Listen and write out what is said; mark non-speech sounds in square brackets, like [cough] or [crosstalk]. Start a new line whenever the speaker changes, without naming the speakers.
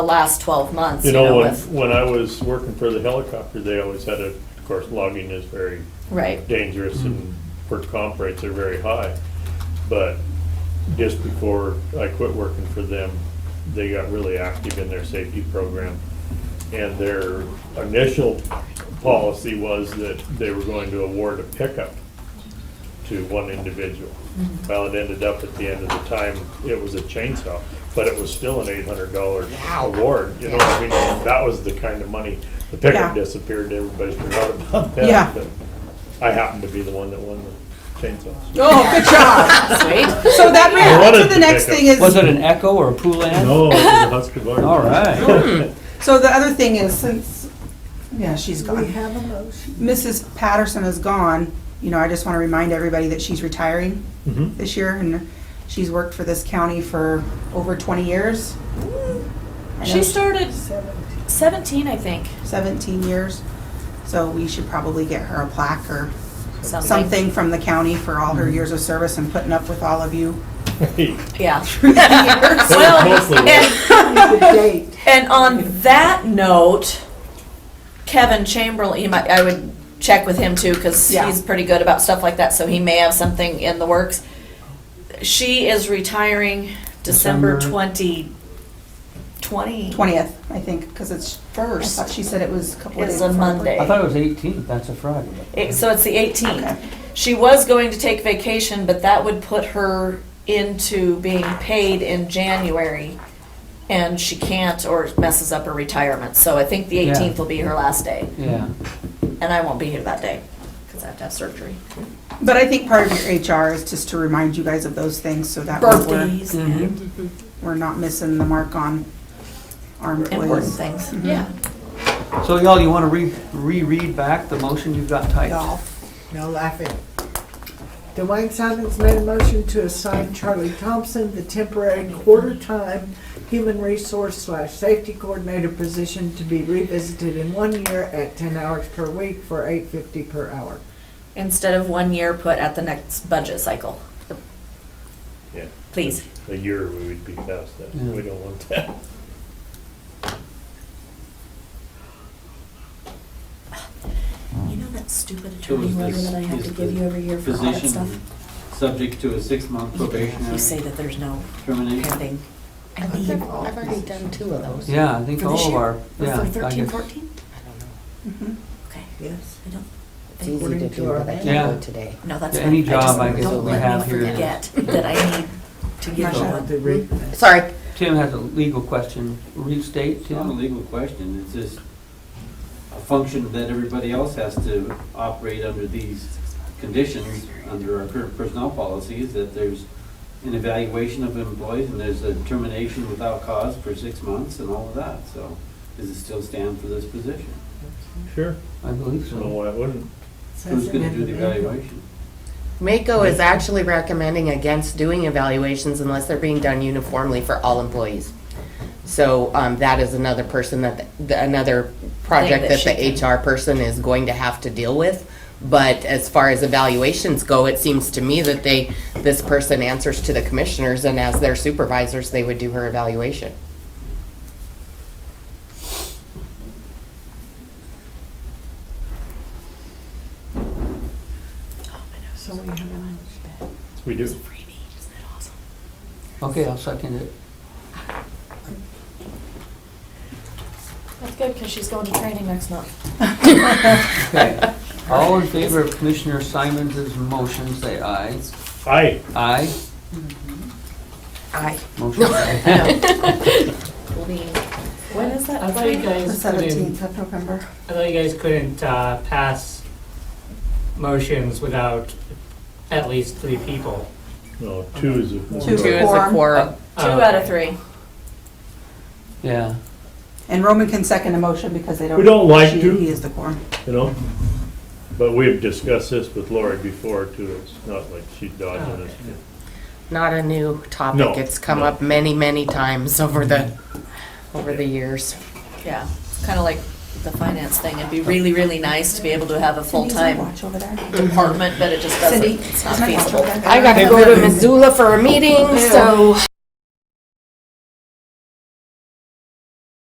the last 12 months,
You know, when,
with-
when I was working for the helicopter, they always had a, of course, logging is very [laughs]
Right,
dangerous and work comp rates are very high. But just before I quit working for them, they got really active in their safety program. And their initial policy was that they were going to award a pickup to one individual. Well, it ended up at the end of the time, it was a chainsaw, but it was still an eight hundred dollar award. You know, what I mean, that was the kind of money, the pickup
Yeah.
disappeared, everybody forgot about that.
Yeah.
but I happened to be the one that won the chainsaws.
Oh, good job.
sweet.
So that
I
brings me
wanted
to
to
the next
pick up-
thing is,
Was it an Echo or a Poulan?
[laughs] No, it was a Husker Barn.
All right.
so the other thing is, since, yeah, she's
We
gone.
have a motion.
Mrs. Patterson is gone, you know, I just want to remind everybody that she's retiring
Mhm.
this year, and she's worked for this county for over 20 years. I know
She started
Seventeen.
17, I think,
17 years, so we should probably get her a plaque or
something.
something from the county for all
Mm-hmm.
her years of service and putting up with all of you.
[laughs] Hey,
Yeah. [laughs]
That
Well,
was mostly
and-
The date.
And on that note, Kevin Chamberlain, you might, I would check with him too, because
Yeah.
he's pretty good about stuff like that, so he may have something in the works. She is retiring December
December.
twenty, twenty
20th, I think, because it's, I thought
first.
she said it was a couple of days.
It's a
before.
Monday.
I thought it was 18th, that's a Friday.
It- So it's the eighteenth.
Okay.
She was going to take vacation, but that would put her into being paid in January. And she can't or messes up her retirement, so I think the
Yeah.
eighteenth will be her last day.
Yeah.
And I won't be here that day because I have to have surgery.
But I think part of your HR is just to remind you guys of those things so that way we're,
Mhm.
we're not missing the mark on our
Important
employees.
things. Mm-hmm.
Mhm.
Yeah.
So y'all, you want to reread back the motion you've got typed?
Y'all.
No laughing. Dwayne Simons made a motion to assign Charlie Thompson the temporary quarter-time human resource slash safety coordinator position to be revisited in one year at ten hours per week for eight fifty per hour.
Instead of one year put at the next budget cycle.
Yeah.
Please.
A year we would be past that.
Yeah.
We don't want that.
You know that stupid
It
attorney
was
letter
this-
that I have
is
to give
the
you every year for all that stuff?
Position subject to a
You
six-month
say
probationary
that there's no
termination.
pending. I
I've
need
done- I've already done two of those.
Yeah, I think
For
all
this
of
year?
our,
for
yeah. I
thirteen,
guess-
fourteen?
Mhm.
Okay.
Yes.
I don't,
It's easy to do, but I
Yeah.
can't do it today.
no, that's
Yeah,
fine.
any
I just
job I guess
don't
we
let me
have here.
Forget that I need to give you
Sure.
one.
To read that.
Sorry.
Tim has a legal question. Restate,
It's not a
Tim?
legal question, it's just a function that everybody else has to operate under these conditions, under our current personnel policies, that there's an evaluation of employees and there's a termination without cause for six months and all of that, so does it still stand for this position?
Sure.
I believe
I don't know
so.
why it wouldn't.
Who's gonna do the evaluation?
Mako is actually recommending against doing evaluations unless they're being done uniformly for all employees. So um, that is another person that, the- another project
that
that
she can-
the HR person is going to have to deal with. But as far as evaluations go, it seems to me that they, this person answers to the commissioners and as their supervisors, they would do her evaluation.
So we have a motion.
We do.
Okay, I'll second it.
That's good, because she's going to training next month.
Okay. All in favor of Commissioner Simons' motion, say aye.
Aye.
Aye? [laughs]
Aye. [laughs]
Motion carried.
When is that?
I thought you
The
guys couldn't,
17th of November.
I thought you guys couldn't uh, pass motions without at least three people.
No, two is a.
Two.
Two is a
Quorum.
quorum.
Two out of three.
Yeah.
And Roman can second a motion because they don't.
We don't like
she-
to.
He is the quorum.
You know? But we've discussed this with Lori before too. It's not like she's dodging
Oh,
us.
Not a new
No,
topic. It's come
no.
up many, many times over the, over the years.
Yeah, kind of like the finance thing. It'd
Oh.
be really, really nice to be able to have a
Cindy's on
full-time
Watch over there.
department, but it just doesn't,
Cindy,
it's
is
not
my watch
feasible.
over there?
I gotta go to Missoula for a meeting, so